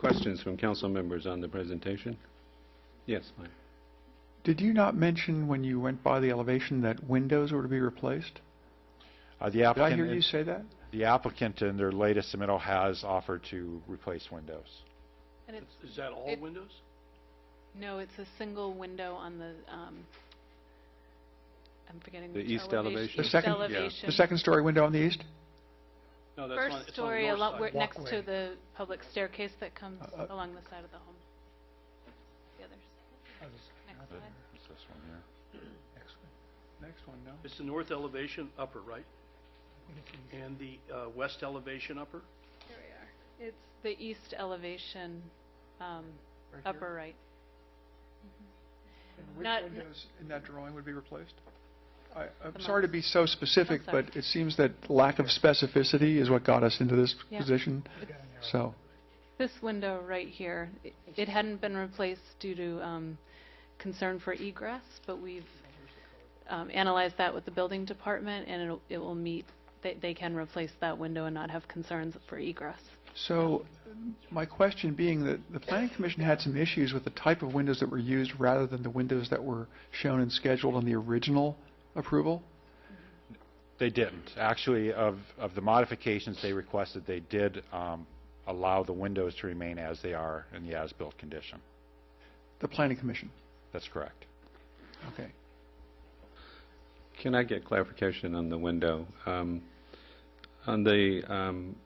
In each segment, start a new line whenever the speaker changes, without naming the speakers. Questions from council members on the presentation? Yes, Mike.
Did you not mention when you went by the elevation that windows were to be replaced?
Uh, The
Did I hear
applicant,
you say that?
the applicant in their latest submittal has offered to replace windows.
And it's,
Is that all
It-
windows?
no, it's a single window on the, um, I'm forgetting
The
which
east elevation?
elevation.
The
East
second- yeah.
elevation.
The second-story window on the east?
No, that's on,
First
it's on the
story,
north
along,
side.
where- next to
Walkway.
the public staircase that comes
Uh, uh,
along the side of the home. The others. Next slide.
It's this one here.
Next one, no?
It's the north elevation upper, right? And the uh, west elevation upper?
Here we are. It's the east elevation,
Right
um,
here?
upper right. Mm-hmm.
And which
Not-
windows in that drawing would be replaced? I- I'm
The
sorry to
most.
be so specific,
sorry.
but it seems that lack of specificity is what got us into this
Yeah.
position, so.
This window right here, i- it hadn't been replaced due to um, concern for egress, but we've um, analyzed that with the building department, and it'll- it will meet, they- they can replace that window and not have concerns for egress.
So, my question being that the planning commission had some issues with the type of windows that were used rather than the windows that were shown and scheduled on the original approval?
They didn't. Actually, of, of the modifications they requested, they did um, allow the windows to remain as they are in the as-built condition.
The planning commission,
That's correct.
okay.
Can I get clarification on the window? Um, On the um,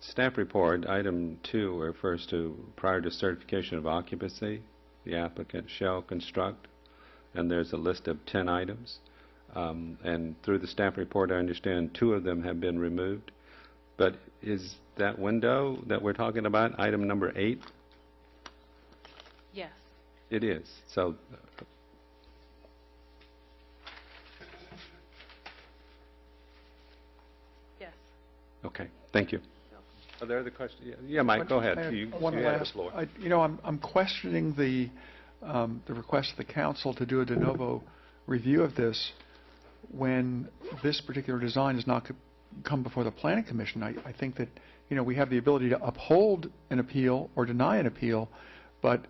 staff report, item two refers to prior to certification of occupancy, the applicant shall construct, and there's a list of 10 items. Um, And through the staff report, I understand two of them have been removed. But is that window that we're talking about, item number eight?
Yes.
It is. So
Yes.
Okay, thank you. Are there other questions? Yeah, Mike, go
I
ahead.
had
You you
one
have the
last-
floor.
I- You know, I'm I'm questioning the, um, the request of the council to do a de novo review of this when this particular design has not co- come before the planning commission. I, I think that, you know, we have the ability to uphold an appeal or deny an appeal, but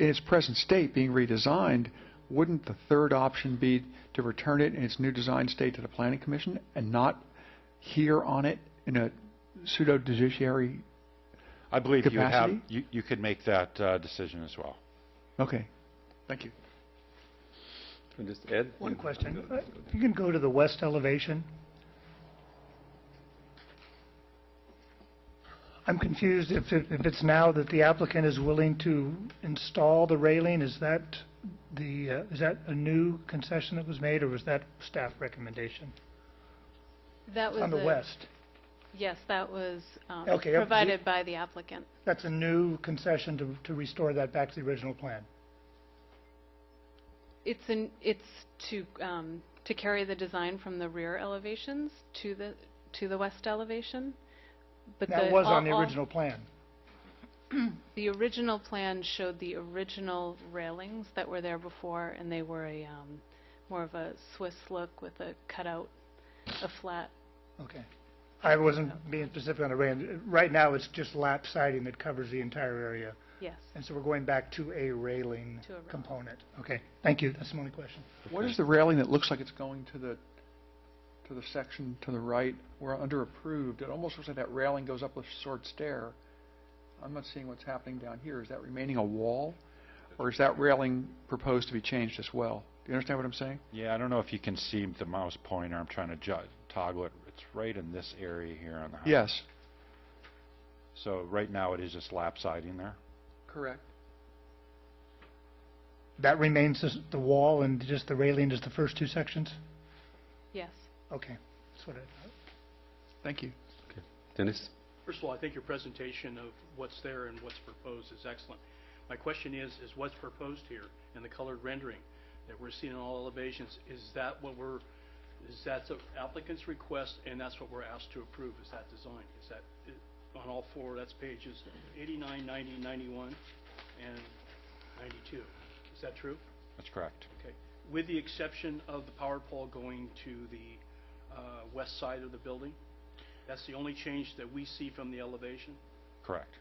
in its present state, being redesigned, wouldn't the third option be to return it in its new design state to the planning commission and not hear on it in a pseudo judiciary
I believe you would have,
Capacity?
you you could make that uh, decision as well.
Okay, thank you.
Just Ed?
One question. Uh, You can go to the west elevation. I'm confused if, it- if it's now that the applicant is willing to install the railing, is that the, uh, is that a new concession that was made, or was that staff recommendation?
That was
On the
a-
west,
Yes, that was um,
Okay, up-
provided by the applicant.
that's a new concession to, to restore that back to the original plan.
It's in, it's to, um, to carry the design from the rear elevations to the, to the west elevation, but the...
That was on the
all- all-
original plan.
The original plan showed the original railings that were there before, and they were a, um, more of a Swiss look with a cutout, a flat.
Okay. I wasn't being specific on the railing. Right now, it's just lap siding that covers the entire area.
Yes.
And so we're going back to a railing
To a railing.
component. Okay, thank you. That's my only question.
What is the railing that looks like it's going to the, to the section to the right? We're under approved. It almost looks like that railing goes up a short stair. I'm not seeing what's happening down here. Is that remaining a wall? Or is that railing proposed to be changed as well? Do you understand what I'm saying?
Yeah, I don't know if you can see the mouse pointer, I'm trying to ju- toggle it. It's right in this area here on the house.
Yes.
So right now, it is just lap siding there.
Correct.
That remains as the wall and just the railing is the first two sections?
Yes.
Okay, that's what I thought.
Thank you.
Dennis?
First of all, I think your presentation of what's there and what's proposed is excellent. My question is, is what's proposed here in the colored rendering that we're seeing in all elevations, is that what we're, is that the applicant's request and that's what we're asked to approve, is that design? Is that, i- on all four, that's pages 89, 90, 91, and 92. Is that true?
That's correct.
Okay. With the exception of the power pole going to the uh, west side of the building? That's the only change that we see from the elevation?
Correct.